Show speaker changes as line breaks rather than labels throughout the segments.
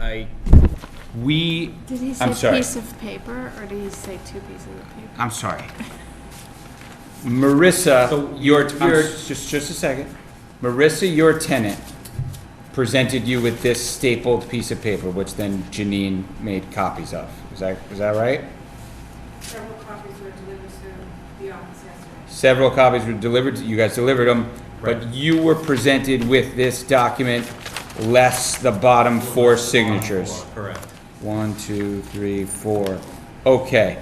I, we,
Did he
I'm
say
sorry.
piece of paper, or did he say two pieces of paper?
I'm sorry. Marissa,
So
your,
I'm
your,
s-
just, just a second. Marissa, your tenant, presented you with this stapled piece of paper, which then Janine made copies of. Is that, is that right?
Several copies were delivered to the office yesterday.
Several copies were delivered, you guys delivered them, but you were presented with this document less the bottom four signatures.
Correct.
One, two, three, four. Okay.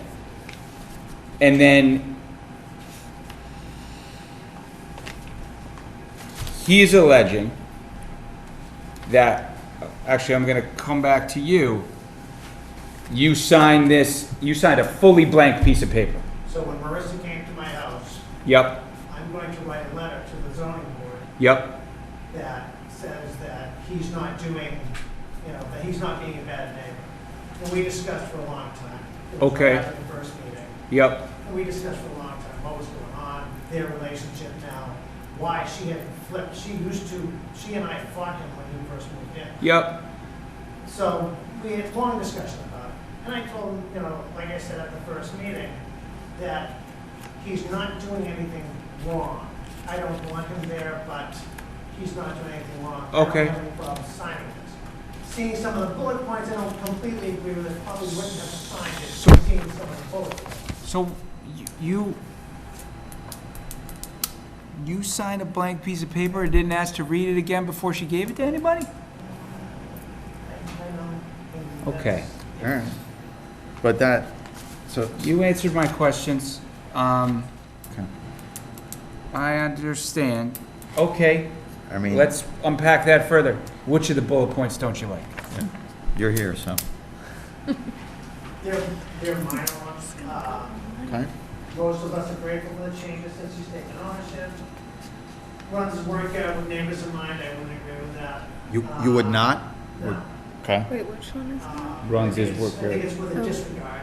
And then he's alleging that, actually, I'm going to come back to you. You signed this, you signed a fully blank piece of paper.
So when Marissa came to my house,
Yep,
I'm going to write a letter to the zoning board
yep,
that says that he's not doing, you know, that he's not being a bad neighbor. And we discussed for a long time. It was
Okay.
After the first meeting.
yep,
And we discussed for a long time what was going on, their relationship now, why she had flipped. She used to, she and I fought him when he first moved in.
yep,
So we had a long discussion about it. And I told him, you know, like I said at the first meeting, that he's not doing anything wrong. I don't want him there, but he's not doing anything wrong. I
Okay.
don't have any problem signing this. Seeing some of the bullet points, I don't completely agree with it, probably wouldn't have signed it, seeing some of the bullet points.
So y- you, you signed a blank piece of paper and didn't ask to read it again before she gave it to anybody?
I- I don't think that's-
Okay.
All right. But that, so,
You answered my questions. Um,
Okay.
I understand. Okay,
I mean,
let's unpack that further. Which of the bullet points don't you like?
you're here, so.
They're, they're minor ones. Um,
Okay.
Most of us are grateful for the changes since he's taken ownership. Runs his work out with neighbors in mind, I wouldn't agree with that. Uh,
You, you would not?
No.
Okay.
Wait, which one is that?
Um,
Runs his
it's-
work
I think
out.
it's with a
Oh.
disregard.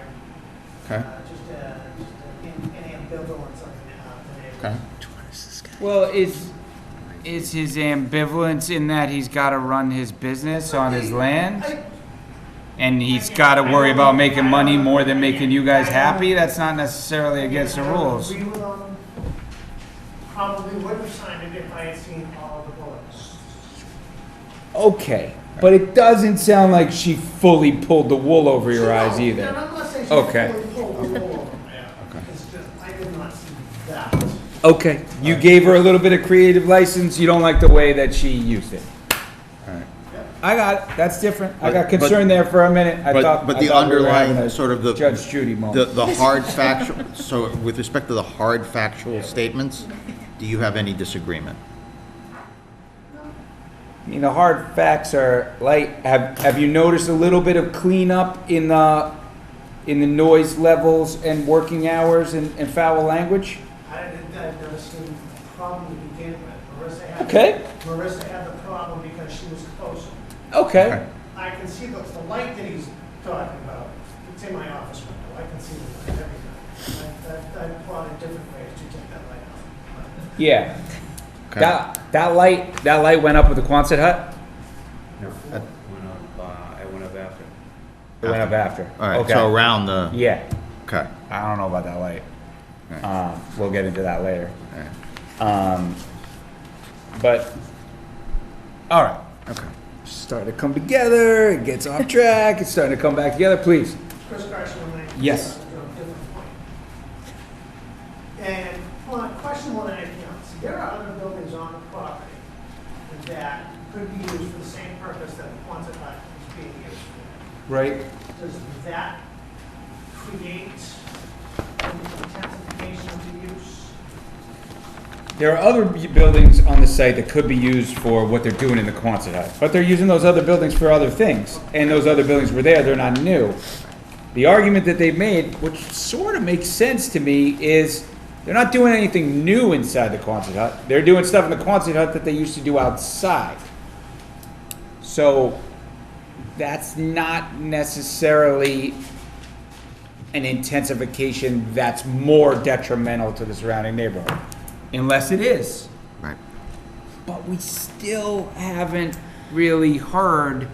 Okay.
uh, Just a, just a- an an ambivalence on the, uh,
Okay.
Well, is, is his ambivalence in that he's gotta run his business on his
the
land?
neighbor.
And he's gotta worry about making money more than making you guys happy? That's not necessarily against the rules.
I agree with him. Probably would have signed it if I had seen all the bullets.
Okay, but it doesn't sound like she fully pulled the wool over your
No,
eyes
no,
either.
no, I'm not saying she's
Okay.
fully pulled the wool.
Okay.
It's just, I did not see that.
Okay, you gave her a little bit of creative license, you don't like the way that she used it.
All right.
I got it, that's different. I got
But- but-
concerned there for a minute. I
But,
thought,
but
I
the
thought we were having
underlying,
a
sort of the.
Judge Judy
The,
moment.
the hard factual, so with respect to the hard factual statements, do you have any disagreement?
I mean, the hard facts are like, have, have you noticed a little bit of cleanup in the, in the noise levels and working hours and, and foul language?
I didn't, I've never seen a problem to begin with. Marissa had.
Okay.
Marissa had the problem because she was closer.
Okay,
I can see the, the light that he's talking about, it's in my office window, I can see the light every night. I, I, I plotted different ways to take that light out.
yeah.
Okay.
That, that light, that light went up with the Quonset hut?
No, went up, uh, I went up after.
It went up after.
All right,
Okay.
so around the,
Yeah,
okay.
I don't know about that light.
Right.
Um, we'll get into that later.
All right.
Um, but, all right.
Okay.
Starting to come together, it gets off track, it's starting to come back together, please.
Chris Carson, when I.
Yes.
to a different point. And on question one, I counts, there are other buildings on the property that could be used for the same purpose that the Quonset hut is being used for.
Right.
Does that create an intensification of the use?
There are other bu- buildings on the site that could be used for what they're doing in the Quonset hut, but they're using those other buildings for other things, and those other buildings were there, they're not new. The argument that they've made, which sort of makes sense to me, is they're not doing anything new inside the Quonset hut. They're doing stuff in the Quonset hut that they used to do outside. So that's not necessarily an intensification that's more detrimental to the surrounding neighborhood, unless it is.
Right.
But we still haven't really heard